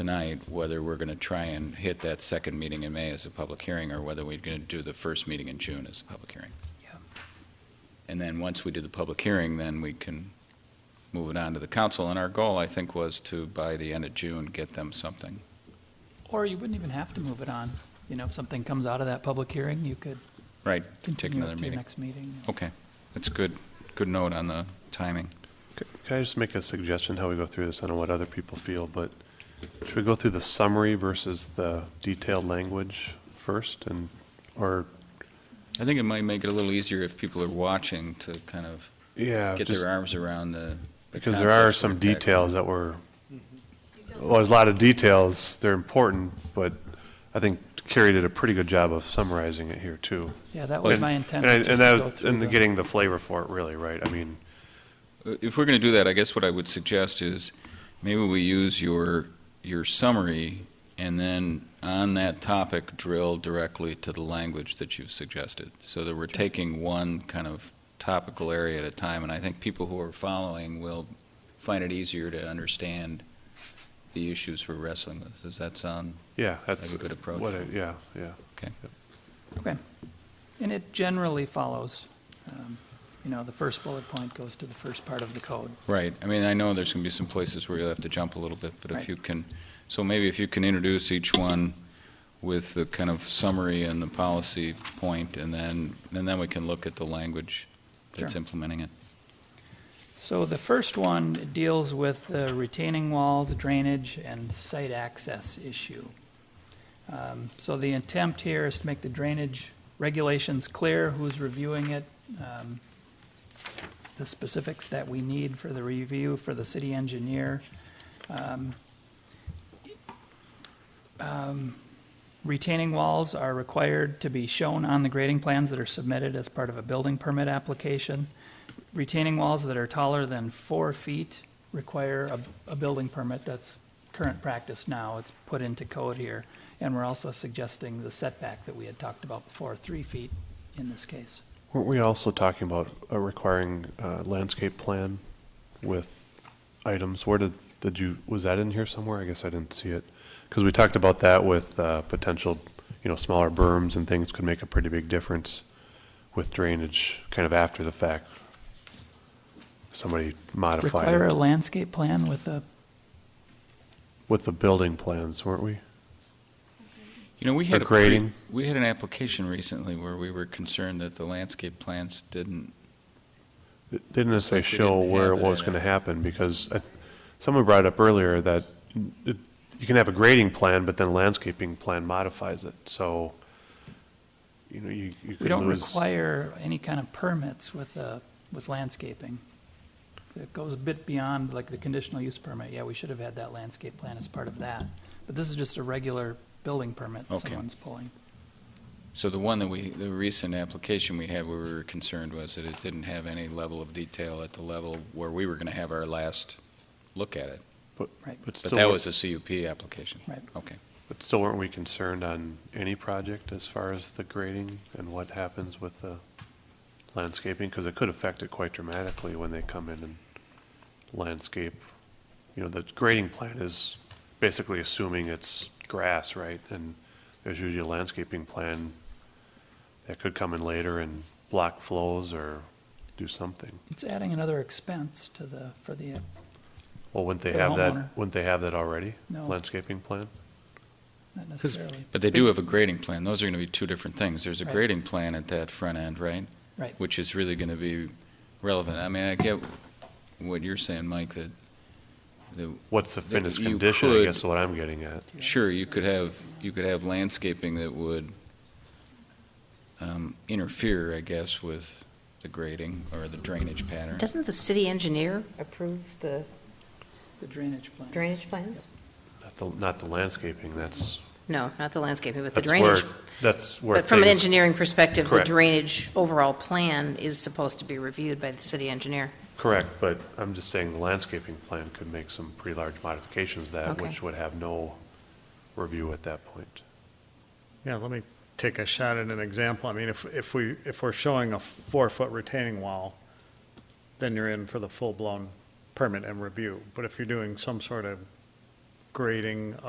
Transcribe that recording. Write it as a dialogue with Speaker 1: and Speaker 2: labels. Speaker 1: tonight whether we're going to try and hit that second meeting in May as a public hearing, or whether we're going to do the first meeting in June as a public hearing. And then, once we do the public hearing, then we can move it on to the council. And our goal, I think, was to, by the end of June, get them something.
Speaker 2: Or you wouldn't even have to move it on. You know, if something comes out of that public hearing, you could
Speaker 1: Right, take
Speaker 2: continue
Speaker 1: another
Speaker 2: it to your
Speaker 1: meeting.
Speaker 2: next meeting.
Speaker 1: Okay, that's good, good note on the timing.
Speaker 3: C- Can I just make a suggestion how we go through this? I don't know what other people feel, but should we go through the summary versus the detailed language first and, or,
Speaker 1: I think it might make it a little easier if people are watching to kind of
Speaker 3: yeah,
Speaker 1: get
Speaker 3: Uh, just,
Speaker 1: their arms around the. the
Speaker 3: because there are
Speaker 1: concepts
Speaker 3: some
Speaker 1: of the package.
Speaker 3: details that were, well, there's a lot of details, they're important, but I think Carrie did a pretty good job of summarizing it here too.
Speaker 2: Yeah, that was
Speaker 3: And-
Speaker 2: my intent.
Speaker 3: and I-
Speaker 2: was just
Speaker 3: And
Speaker 2: to
Speaker 3: that
Speaker 2: go
Speaker 3: was-
Speaker 2: through
Speaker 3: and
Speaker 2: the-
Speaker 3: getting the flavor for it really, right? I mean,
Speaker 1: If we're going to do that, I guess what I would suggest is maybe we use your, your summary and then on that topic drill directly to the language that you've suggested. So that we're taking one kind of topical area at a time. And I think people who are following will find it easier to understand the issues we're wrestling with. Does that sound?
Speaker 3: yeah, that's.
Speaker 1: a good approach.
Speaker 3: What, I- yeah, yeah.
Speaker 2: Okay. And it generally follows, um, you know, the first bullet point goes to the first part of the code.
Speaker 1: Right. I mean, I know there's going to be some places where you'll have to jump a little bit, but if
Speaker 2: Right.
Speaker 1: you can, so maybe if you can introduce each one with the kind of summary and the policy point, and then, and then we can look at the language that's
Speaker 2: Sure.
Speaker 1: implementing it.
Speaker 2: So the first one deals with the retaining walls, drainage, and site access issue. Um, So the intent here is to make the drainage regulations clear, who's reviewing it, um, the specifics that we need for the review for the city engineer. Um, um, Retaining walls are required to be shown on the grading plans that are submitted as part of a building permit application retaining walls that are taller than four feet require a, a building permit. That's current practice now. It's put into code here. And we're also suggesting the setback that we had talked about before, three feet in this case.
Speaker 3: Weren't we also talking about uh, requiring uh, landscape plan with items? Where did, did you, was that in here somewhere? I guess I didn't see it. Because we talked about that with uh, potential, you know, smaller berms and things could make a pretty big difference with drainage kind of after the fact. Somebody modified
Speaker 2: Require a
Speaker 3: it
Speaker 2: landscape plan with a,
Speaker 3: with the building plans, weren't we?
Speaker 1: You know, we had
Speaker 3: For
Speaker 1: a pre-
Speaker 3: grading?
Speaker 1: We had an application recently where we were concerned that the landscape plans didn't,
Speaker 3: It Didn't necessarily
Speaker 1: Like they
Speaker 3: show
Speaker 1: didn't
Speaker 3: where
Speaker 1: have
Speaker 3: it
Speaker 1: it
Speaker 3: was
Speaker 1: in
Speaker 3: going to
Speaker 1: it.
Speaker 3: happen because I- someone brought up earlier that it- you can have a grading plan, but then landscaping plan modifies it. So, you know, you you
Speaker 2: we
Speaker 3: could
Speaker 2: don't
Speaker 3: lose.
Speaker 2: require any kind of permits with, uh, with landscaping. It goes a bit beyond like the conditional use permit. Yeah, we should have had that landscape plan as part of that. But this is just a regular building permit
Speaker 1: Okay.
Speaker 2: someone's pulling.
Speaker 1: so the one that we, the recent application we had where we were concerned was that it didn't have any level of detail at the level where we were going to have our last look at it.
Speaker 2: Right.
Speaker 1: But
Speaker 3: still
Speaker 1: that
Speaker 3: weren't-
Speaker 1: was a CUP application.
Speaker 2: Right.
Speaker 1: Okay.
Speaker 3: But still, weren't we concerned on any project as far as the grading and what happens with the landscaping? Because it could affect it quite dramatically when they come in and landscape. You know, the grading plan is basically assuming it's grass, right? And there's usually a landscaping plan that could come in later and block flows or do something.
Speaker 2: It's adding another expense to the, for the,
Speaker 3: Well, wouldn't they
Speaker 2: For the
Speaker 3: have
Speaker 2: homeowner.
Speaker 3: that, wouldn't they have that already?
Speaker 2: No.
Speaker 3: Landscaping plan?
Speaker 2: not necessarily,
Speaker 1: But they do have a grading plan. Those are going to be two different things. There's a
Speaker 2: Right.
Speaker 1: grading plan at that front end, right?
Speaker 2: right.
Speaker 1: Which is really going to be relevant. I mean, I get what you're saying, Mike, that, that,
Speaker 3: What's the
Speaker 1: That
Speaker 3: finished
Speaker 1: you
Speaker 3: condition, I
Speaker 1: could-
Speaker 3: guess is what I'm getting at.
Speaker 1: sure, you could have, you could have landscaping that would um, interfere, I guess, with the grading or the drainage pattern.
Speaker 4: Doesn't the city engineer approve the
Speaker 2: The drainage plan.
Speaker 4: drainage plans?
Speaker 3: Not the, not the landscaping, that's,
Speaker 4: No, not the landscaping, but the
Speaker 3: that's where,
Speaker 4: drainage.
Speaker 3: that's where
Speaker 4: But from an
Speaker 3: things-
Speaker 4: engineering perspective, the
Speaker 3: Correct.
Speaker 4: drainage overall plan is supposed to be reviewed by the city engineer.
Speaker 3: Correct, but I'm just saying the landscaping plan could make some pretty large modifications that,
Speaker 4: Okay.
Speaker 3: which would have no review at that point.
Speaker 5: Yeah, let me take a shot at an example. I mean, if, if we, if we're showing a four-foot retaining wall, then you're in for the full-blown permit and review. But if you're doing some sort of grading